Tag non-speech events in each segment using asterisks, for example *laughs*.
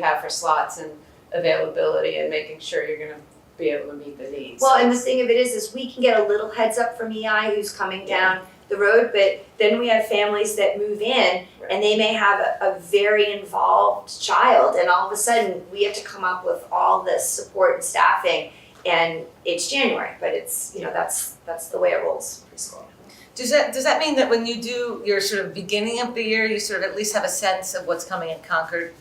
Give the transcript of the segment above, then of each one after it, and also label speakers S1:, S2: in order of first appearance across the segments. S1: have for slots and availability and making sure you're gonna be able to meet the needs.
S2: Well, and the thing of it is, is we can get a little heads up from EI who's coming down the road, but then we have families that move in and they may have a, a very involved child and all of a sudden we have to come up with all this support and staffing and it's January, but it's, you know, that's, that's the way it rolls in preschool.
S3: Does that, does that mean that when you do your sort of beginning of the year, you sort of at least have a sense of what's coming in Concord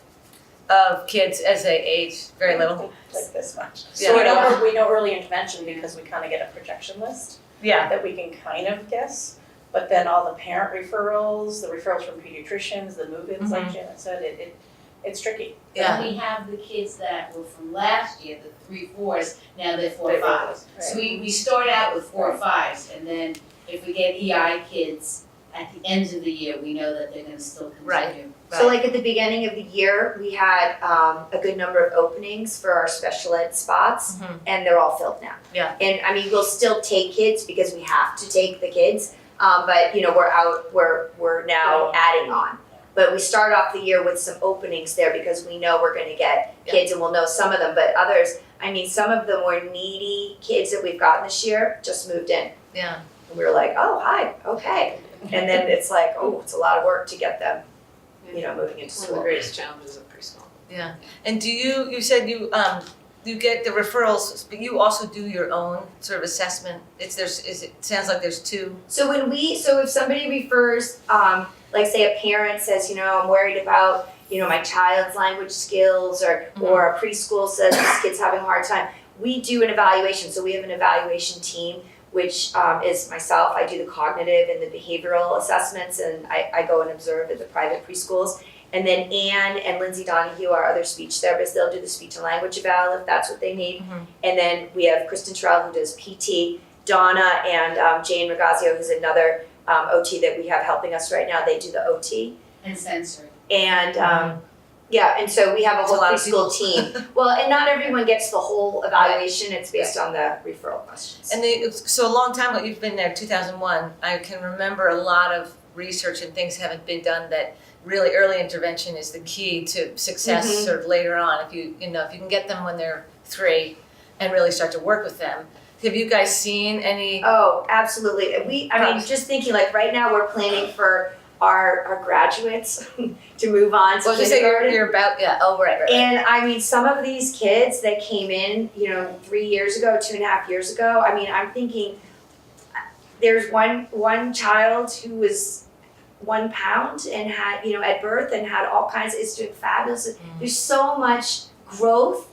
S3: of kids as they age, very little?
S4: like this much.
S3: Yeah.
S4: So we know, we know early intervention because we kind of get a projection list
S3: Yeah,
S4: that we can kind of guess. But then all the parent referrals, the referrals from pediatricians, the
S3: Mm-hmm.
S4: move-ins, like Janet said, it, it, it's tricky.
S3: yeah.
S5: And we have the kids that were from last year, the three fours, now they're four
S4: They-
S5: fives.
S4: *laughs*
S5: So
S4: Right.
S5: we, we start out with four fives, and then if we get EI kids at the end of the year, we know that they're gonna still
S3: Right.
S5: continue.
S2: So like at the beginning of the year, we had um a good number of openings for our special ed spots
S3: Mhm.
S2: and they're all filled now.
S3: Yeah.
S2: And I mean, we'll still take kids because we have to take the kids, um but you know, we're out, we're we're now adding on. But we start off the year with some openings there because we know we're gonna get
S3: Yeah.
S2: kids and we'll know some of them, but others, I mean, some of the more needy kids that we've gotten this year just moved in.
S3: Yeah.
S2: And we were like, oh, hi, okay. And then it's like, oh, it's a lot of work to get them, you know, moving into
S1: It's one of
S2: school.
S1: the greatest challenges of preschool.
S3: And do you, you said you, um, you get the referrals, but you also do your own sort of assessment? It's, there's, is it, sounds like there's two.
S2: So when we, so if somebody refers, um, like say a parent says, you know, I'm worried about, you know, my child's language skills, or
S3: Mhm.
S2: or a preschool says this kid's having a hard time. We do an evaluation, so we have an evaluation team, which um, is myself. I do the cognitive and the behavioral assessments, and I, I go and observe at the private preschools. And then Anne and Lindsay Donahue, our other speech therapists, they'll do the speech and language eval if that's what they need.
S3: Mhm.
S2: And then we have Kristen Terrell who does PT, Donna and um, Jane Regazio, who's another um, OT that we have helping us right now. They do the OT.
S5: And sensory.
S2: And um, yeah, and so we have a
S3: Mm-hmm. It's a
S2: whole
S3: lot of
S2: preschool
S3: *laughs*
S2: team. well, and not everyone gets the whole evaluation. It's based on the referral questions.
S3: And they, so a long time ago, you've been there, two thousand one, I can remember a lot of research and things haven't been done that really early intervention is the key to success
S6: Mm-hmm.
S2: Mhm.
S3: sort of later on, if you, you know, if you can get them when they're three and really start to work with them. Have you guys seen
S6: Uh,
S3: any,
S2: Oh, absolutely. And We, I mean,
S3: Gosh.
S2: just thinking like right now we're planning for our, our graduates *laughs* to move on to
S3: well, you say you're,
S2: kindergarten.
S3: you're about, yeah, oh, right, right, right.
S2: And I mean, some of these kids that came in, you know, three years ago, two and a half years ago, I mean, I'm thinking, there's one, one child who was one pound and had, you know, at birth and had all kinds, is doing fabulous. There's so much growth,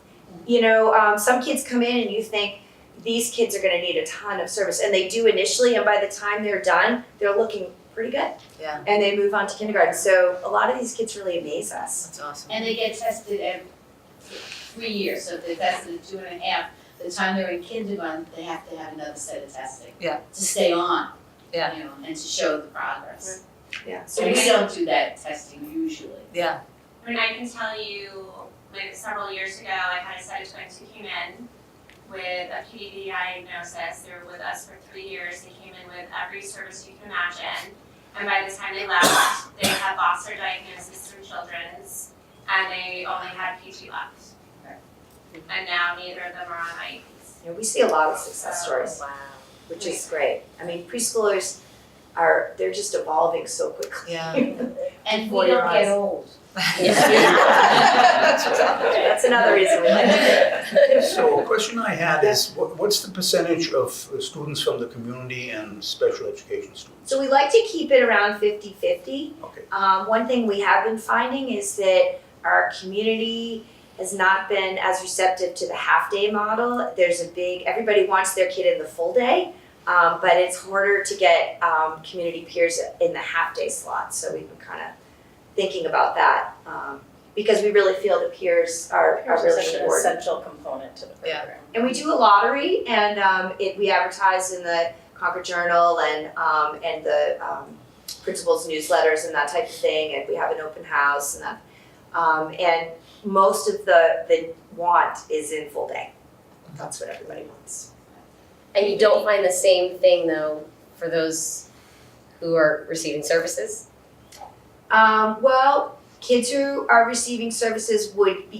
S2: you know, um, some kids come in and you think, these kids are gonna need a ton of service, and they do initially, and by the time they're done, they're looking pretty good.
S3: Yeah.
S2: And they move on to kindergarten, so a lot of these kids really amaze us.
S3: That's awesome.
S5: And they get tested every three years, so if they're tested at two and a half, the time they're in kindergarten, they have to have another set of testing.
S3: Yeah.
S5: To stay on.
S3: Yeah.
S5: You know, and to show the progress.
S2: Yeah,
S5: So
S2: so
S5: we
S2: we
S5: don't do that testing usually.
S3: Yeah,
S6: I mean, I can tell you, like several years ago, I had a subject who came in with a PDD diagnosis. They were with us for three years. They came in with every service you can imagine. And by the time they left, they had lost their diagnosis from children's and they only had PT left. And now neither of them are on IEPs.
S2: you know, we see a lot of success stories,
S5: Wow.
S2: which is great. I mean, preschoolers are they're just evolving so quickly.
S3: yeah.
S5: And
S2: Before
S5: we
S2: your
S5: don't get
S2: eyes.
S5: old.
S3: *laughs*
S2: That's another reason we like
S5: *laughs*
S3: *laughs*
S2: it.
S7: So a question I had is, wha- what's the percentage of uh, students from the community and special education students?
S2: So we like to keep it around 50-50.
S7: Okay.
S2: Um, one thing we have been finding is that our community has not been as receptive to the half day model. There's a big everybody wants their kid in the full day. Um, but it's harder to get um, community peers in the half day slot. So we've been kind of thinking about that um, because we really feel the peers are, are really
S4: Such an
S2: important.
S4: essential component to the
S3: Yeah.
S4: program.
S2: And we do a lottery and um it we advertise in the Concord Journal and um and the um principals newsletters and that type of thing and we have an open house and that um and most of the the want is in full day. That's what everybody wants.
S8: And you don't find the same thing though for those who are receiving services?
S2: Um well, kids who are receiving services would be